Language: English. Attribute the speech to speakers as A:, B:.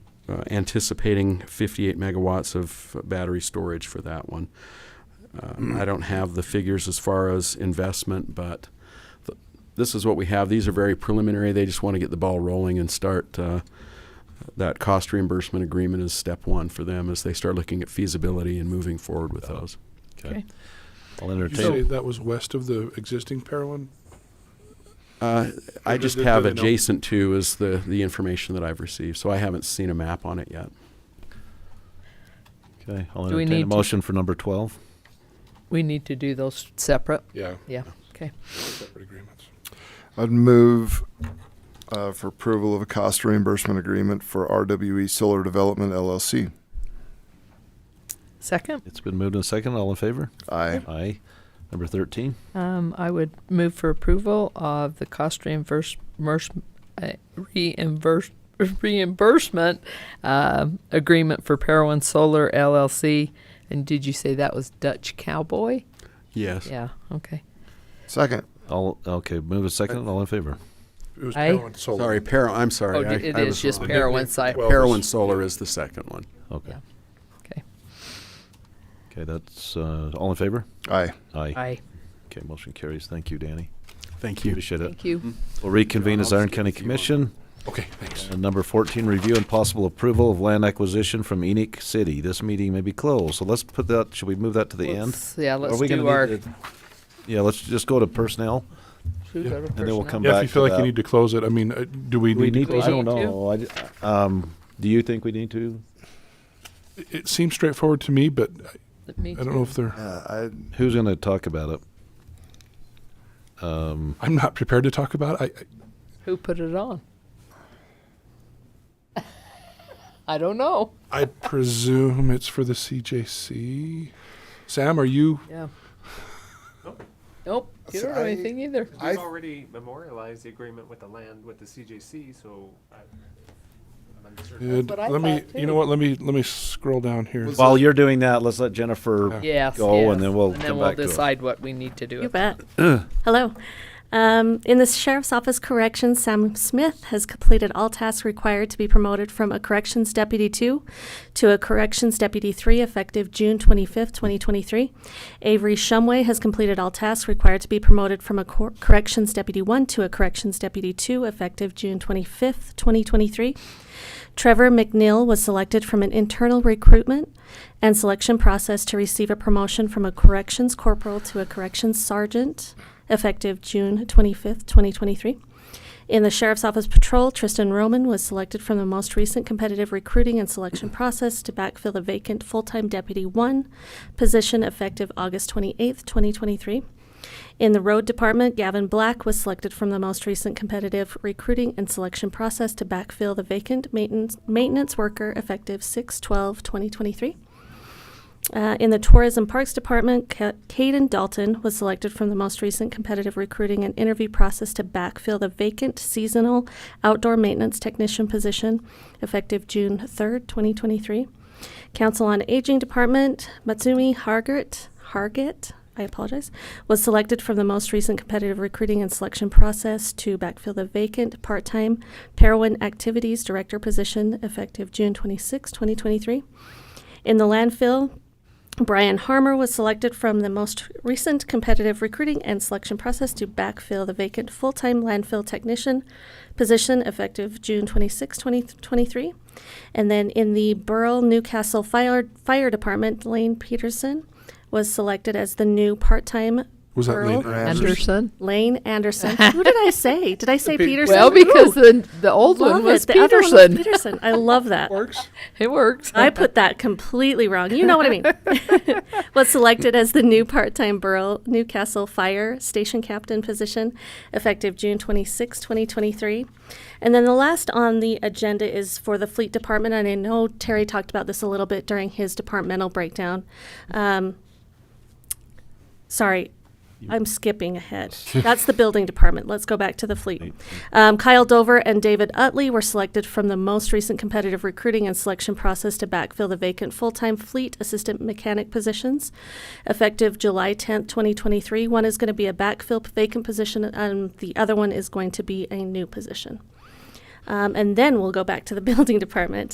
A: uh, anticipating 58 megawatts of battery storage for that one. Um, I don't have the figures as far as investment, but th- this is what we have. These are very preliminary. They just want to get the ball rolling and start. Uh, that cost reimbursement agreement is step one for them as they start looking at feasibility and moving forward with those.
B: Okay.
C: I'll
D: You say
C: entertain.
D: that was west of the existing Parowan?
A: Uh, I
D: Or
A: just
D: did-
A: have
D: did they know?
A: adjacent to is the, the information that I've received, so I haven't seen a map on it yet.
C: Okay, I'll
B: Do we
C: entertain
B: need
C: a
B: to-
C: motion for number 12.
B: We need to do those separate.
D: Yeah,
B: Yeah. Okay.
D: separate agreements.
E: I'd move uh, for approval of a cost reimbursement agreement for RWE Solar Development LLC.
B: Second,
C: It's been moved and second. All in favor?
E: Aye.
C: Aye. Number 13.
B: um, I would move for approval of the cost reimburse, merse- uh, reimburse, reimbursement um agreement for Parowan Solar LLC. And did you say that was Dutch Cowboy?
A: Yes.
B: Yeah. Okay.
E: Second.
C: All, okay, move a second. All in favor?
D: It was
B: Aye.
D: Parowan Solar.
A: Sorry, Para, I'm sorry.
B: Oh,
A: I-
B: d- it
A: I
B: is
A: was
B: just
A: wrong.
B: Para- Parowan site.
D: Well,
A: Parowan Solar is the second one.
C: Okay.
B: Yeah. Okay.
C: Okay, that's, uh, all in favor?
E: Aye.
C: Aye.
B: Aye.
C: Okay, motion carries. Thank you, Danny.
A: Thank you.
C: Appreciate it.
B: Thank you.
C: We'll reconvene as
A: I'll
C: Iron
A: just
C: County
A: give it to you on-
C: Commission.
D: Okay, thanks.
C: And number 14, review and possible approval of land acquisition from Enoch City. This meeting may be closed. So let's put that, should we move that to the end?
B: Let's- Yeah,
C: Are
B: let's
C: we gonna
B: do
C: need
B: our.
C: to- Yeah, let's just go to personnel.
B: should we go to
C: then we'll
B: personnel?
C: come
D: Yeah, if
C: back
D: you feel
C: to
D: like you
C: that.
D: need to close it, I mean, uh, do we
C: we
D: need to
C: need,
D: close
C: I
D: it?
C: don't
B: it? Me too.
C: know. I d- um, do you think we need to?
D: It seems straightforward to me, but I-
B: Me
D: I don't
B: too.
D: know if they're,
E: Uh,
C: Who's going to talk about it? Um,
D: I'm not prepared to talk about it. I- I-
B: Who put it on? I don't know.
D: I presume it's for the CJC. Sam, are you?
B: Yeah. Nope. You
E: So
B: don't know
E: I-
B: anything either.
E: I-
F: We've already memorialized the agreement with the land with the CJC, so I- I'm uncertain.
D: Good.
B: what I
D: Let me,
B: thought,
D: you know
B: too.
D: what, let me, let me scroll down here.
C: while you're doing that, let's let Jennifer.
D: Yeah.
B: Yes.
C: Go, and
B: yes.
C: then we'll
B: And then
C: come
B: we'll
C: back to it.
B: decide what we need to do.
G: You bet. Hello. Um, in the Sheriff's Office Corrections, Sam Smith has completed all tasks required to be promoted from a Corrections Deputy 2 to a Corrections Deputy 3 effective June 25th, 2023. Avery Shumway has completed all tasks required to be promoted from a cor- Corrections Deputy 1 to a Corrections Deputy 2 effective June 25th, 2023. Trevor McNeil was selected from an internal recruitment and selection process to receive a promotion from a corrections corporal to a corrections sergeant effective June 25th, 2023. In the Sheriff's Office Patrol, Tristan Roman was selected from the most recent competitive recruiting and selection process to backfill the vacant full time Deputy 1 position effective August 28th, 2023. In the road department, Gavin Black was selected from the most recent competitive recruiting and selection process to backfill the vacant maintenance, maintenance worker effective 6 12 2023. Uh, in the Tourism Parks Department, Ca- Caden Dalton was selected from the most recent competitive recruiting and interview process to backfill the vacant seasonal outdoor maintenance technician position effective June 3rd, 2023. Council on Aging Department, Matsumi Hargit, Hargit, I apologize, was selected from the most recent competitive recruiting and selection process to backfill the vacant part-time Parowan Activities Director position effective June 26, 2023. In the landfill, Brian Harmer was selected from the most recent competitive recruiting and selection process to backfill the vacant full-time landfill technician position effective June 26, 2023. And then in the Burl Newcastle Fire, Fire Department, Lane Peterson was selected as the new part-time
D: Was that
G: Earl
D: Lane Anderson?
B: Anderson.
G: Lane Anderson. Who did I say? Did I say Peterson?
B: Well, because
G: Ooh,
B: the the old
G: love
B: one was
G: it. The other one was
B: Peterson.
G: Peterson. I love that.
D: Works.
B: It works.
G: I put that completely wrong. You know what I mean. was selected as the new part-time Borough Newcastle Fire Station Captain position, effective June 26, 2023. And then the last on the agenda is for the Fleet Department, and I know Terry talked about this a little bit during his departmental breakdown. Um, sorry, I'm skipping ahead. That's the building department. Let's go back to the fleet. Um, Kyle Dover and David Utley were selected from the most recent competitive recruiting and selection process to backfill the vacant full-time fleet assistant mechanic positions, effective July 10th, 2023. One is going to be a backfill vacant position, and the other one is going to be a new position. Um, and then we'll go back to the building department.